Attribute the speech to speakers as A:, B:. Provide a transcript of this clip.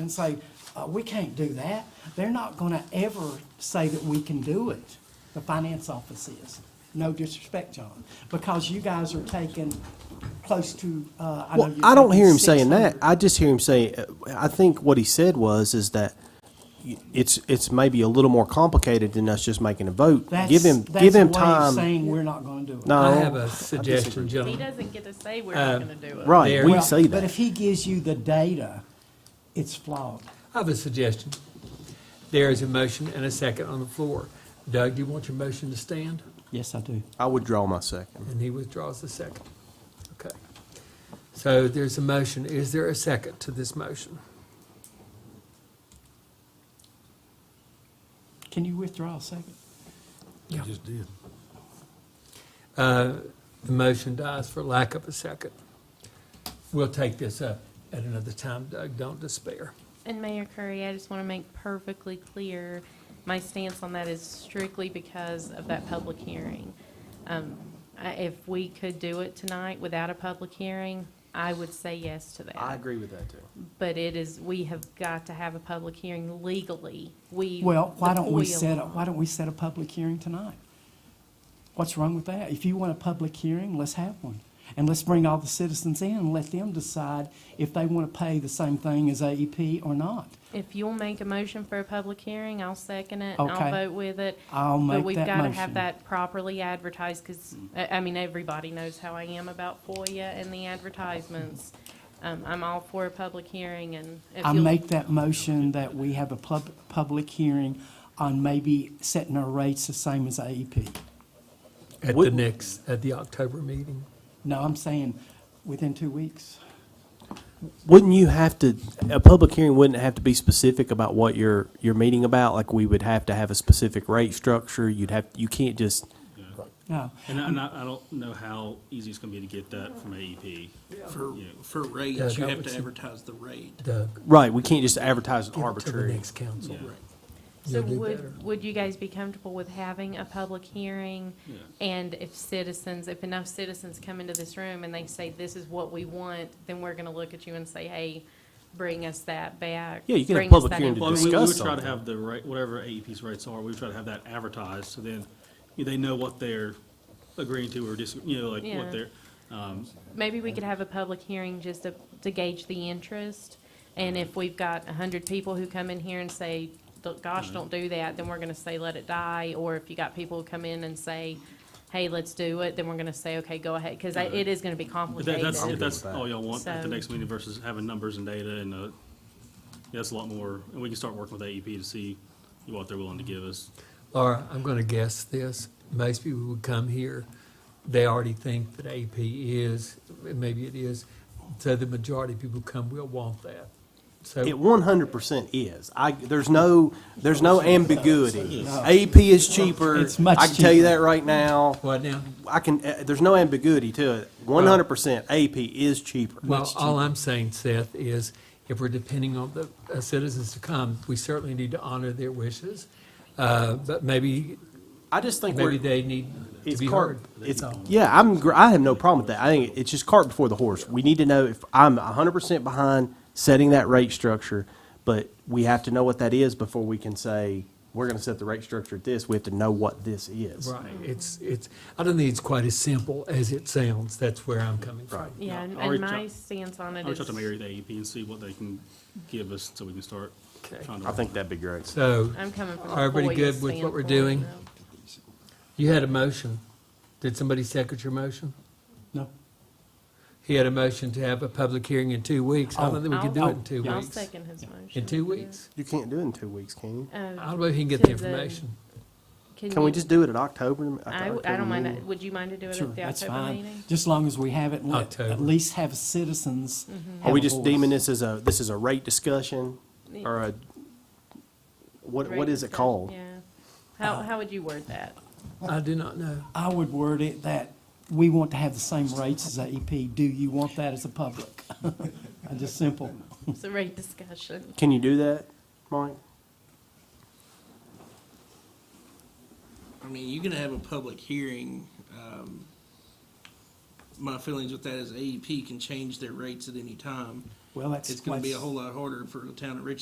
A: and say, uh, we can't do that. They're not gonna ever say that we can do it, the finance office is. No disrespect, John, because you guys are taking close to, uh, I know
B: Well,
A: you're
B: I don't hear him
A: taking
B: saying that.
A: 600.
B: I just hear him saying, uh, I think what he said was, is that y- it's, it's maybe a little more complicated than us just making a vote. Give
A: That's-
B: him, give him
A: That's a way of
B: time.
A: saying we're not gonna do it.
B: No.
C: I have a suggestion,
D: He
C: gentlemen.
D: doesn't get to say we're not gonna do it.
B: Right,
C: There.
B: we
A: Well,
B: say
A: But if
B: that.
A: he gives you the data, it's flawed.
C: I have a suggestion. There is a motion and a second on the floor. Doug, do you want your motion to stand?
A: Yes, I do.
B: I withdraw my second.
C: And he withdraws the second. Okay. So there's a motion. Is there a second to this motion?
A: Can you withdraw a second?
C: You just did. Uh, The motion dies for lack of a second. We'll take this up at another time, Doug. Don't despair.
D: And Mayor Curry, I just wanna make perfectly clear, my stance on that is strictly because of that public hearing. Um, I, if we could do it tonight without a public hearing, I would say yes to that.
B: agree with that too.
D: But it is, we have got to have a public hearing legally. We.
A: Well, why don't we
D: the FOIA
A: set, a
D: law.
A: why don't we set a public hearing tonight? What's wrong with that? If you want a public hearing, let's have one. And let's bring all the citizens in and let them decide if they want to pay the same thing as AEP or not.
D: If you'll make a motion for a public hearing, I'll second it, and
A: Okay.
D: I'll vote with it.
A: I'll make
D: But we've
A: that
D: got to
A: motion.
D: have that properly advertised, because, I, I mean, everybody knows how I am about FOIA and the advertisements. Um, I'm all for a public hearing, and if
A: I
D: you'll-
A: make that motion that we have a pub, public hearing on maybe setting our rates the same as E AEP.
C: At the
B: Would-
C: next, at the October meeting.
A: No, I'm saying within two weeks.
B: Wouldn't you have to, a public hearing wouldn't have to be specific about what you're, you're meeting about? Like we would have to have a specific rate structure. You'd have, you can't just,
A: No,
E: And I, and I I don't know how easy it's gonna be to get that from E AEP.
F: For,
E: You know,
F: for
C: Yeah,
F: rates, you
C: that
F: have
C: would
F: to
C: seem-
F: advertise the rate.
C: Doug,
B: right, we can't just advertise it
C: give it to the
B: arbitrary.
C: next council.
E: Yeah.
D: So
C: You'll do better.
D: would, would you guys be comfortable with having a public hearing?
E: Yeah.
D: And if citizens, if enough citizens come into this room and they say, this is what we want, then we're gonna look at you and say, hey, bring us that back.
B: Yeah, you can have
D: Bring us
B: public
D: that
B: hearing to
D: information."
E: Well, I mean, we we would
B: discuss
E: try to
B: something.
E: have the right, whatever AEP's rates are, we would try to have that advertised, so then you know, they know what they're agreeing to or dis, you know, like
D: Yeah.
E: what they're, um,
D: Maybe we could have a public hearing just to, to gauge the interest. And if we've got a hundred people who come in here and say, "D- gosh, don't do that, then we're gonna say, let it die. Or if you got people who come in and say, hey, let's do it, then we're gonna say, okay, go ahead, cause I- it is gonna be
E: if that- that's, if
D: complicated.
E: that's all y'all want at
D: So-
E: the next meeting versus having numbers and data and, uh, that's a lot more, and we can start working with AEP to see what they're willing to give us.
C: Laura, I'm going to guess this. Most people who come here, they already think that AP is, maybe it is. So the majority of people who come will want that.
B: It
C: So
B: one hundred percent is. I, there's no, there's no ambiguity. AP is cheaper.
A: It's much
B: I can tell you
A: cheaper.
B: that right now.
C: what now?
B: I can, uh, there's no ambiguity to it. One hundred percent AP is cheaper.
C: Well, all I'm saying, Seth, is if we're depending on the uh, citizens to come, we certainly need to honor their wishes. Uh, But maybe,
B: I just think
C: maybe
B: we're,
C: they need to
B: it's
C: be
B: cart,
C: heard.
B: it's,
C: That's all.
B: yeah, I'm, gr- I have no problem with that. I think it's just cart before the horse. We need to know if, I'm hundred percent behind setting that rate structure, but we have to know what that is before we can say, we're gonna set the rate structure at this. We have to know what this is.
C: Right, it's, it's, I don't think it's quite as simple as it sounds, that's where I'm coming from.
D: Yeah, and
E: I'll reach
D: and my
E: out-
D: stance on it
E: I'll reach out
D: is,
E: to Mary at AEP and see what they can give us, so we can start
C: Okay.
E: trying to.
B: I think that'd be great.
C: So,
D: I'm coming from a
C: Are everybody
D: FOIA
C: good with what we're
D: standpoint,
C: doing?
D: though.
C: you had a motion. Did somebody second your motion?
A: no.
C: He had a motion to have a public hearing in two weeks. I don't think we can do it in two
D: Oh. I'll- I'll
C: weeks.
D: second his motion.
C: In two weeks?
B: You can't do it in two weeks, can you?
C: I
D: Uh,
C: don't know if he can get
D: To
C: the
D: the-
C: information.
B: Can we just do it in October? at the
D: I, w- I
B: October
D: don't mind
B: meeting?
D: that. Would you mind to do it
A: Sure,
D: at the
A: that's
D: October
A: fine.
D: meeting?
A: Just long as we have it, let-
C: October.
A: at least have citizens.
B: Are
D: Mm-hmm.
A: have
B: we
A: a
B: just
A: voice.
B: deeming this as a, this is a rate discussion or a, what, what
D: Right,
B: is it
D: that-
B: called?
D: Yeah. How, how would you word that?
C: I do not know.
A: I would word it that we want to have the same rates as AEP. Do you want that as a public? And Just simple.
D: It's a rate discussion.
B: Can you do that, Mike?
F: I mean, you can have a public hearing. E um, My feelings with that is AEP can change their rates at any time.
A: Well, that's.
F: It's gonna be a
A: that's-
F: whole lot harder for the town of Richland